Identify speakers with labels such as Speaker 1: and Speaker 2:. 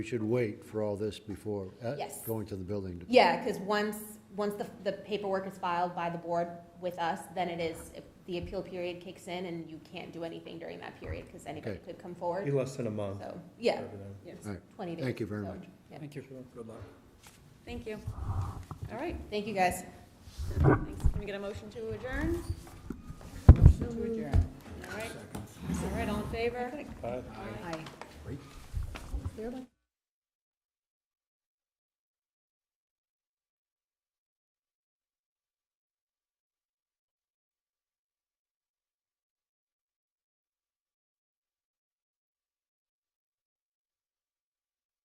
Speaker 1: We should wait for all this before, uh,
Speaker 2: Yes.
Speaker 1: going to the building. department.
Speaker 2: Yeah, because once, once the, the paperwork is filed by the board with us, then it is, the appeal period kicks in and you can't do anything during that period because anybody
Speaker 1: Okay.
Speaker 2: could come
Speaker 3: Be
Speaker 2: forward.
Speaker 3: less than a month.
Speaker 2: So, yeah,
Speaker 1: All right.
Speaker 2: twenty days.
Speaker 1: Thank you very
Speaker 2: so,
Speaker 1: much.
Speaker 2: yeah.
Speaker 4: Thank you.
Speaker 3: Good luck.
Speaker 5: Thank you. All right,
Speaker 2: Thank you, guys.
Speaker 5: thanks. Can we get a motion to adjourn?
Speaker 4: Motion to adjourn.
Speaker 5: All right, all right, all in favor?
Speaker 3: Bye.
Speaker 5: Aye.
Speaker 1: Great.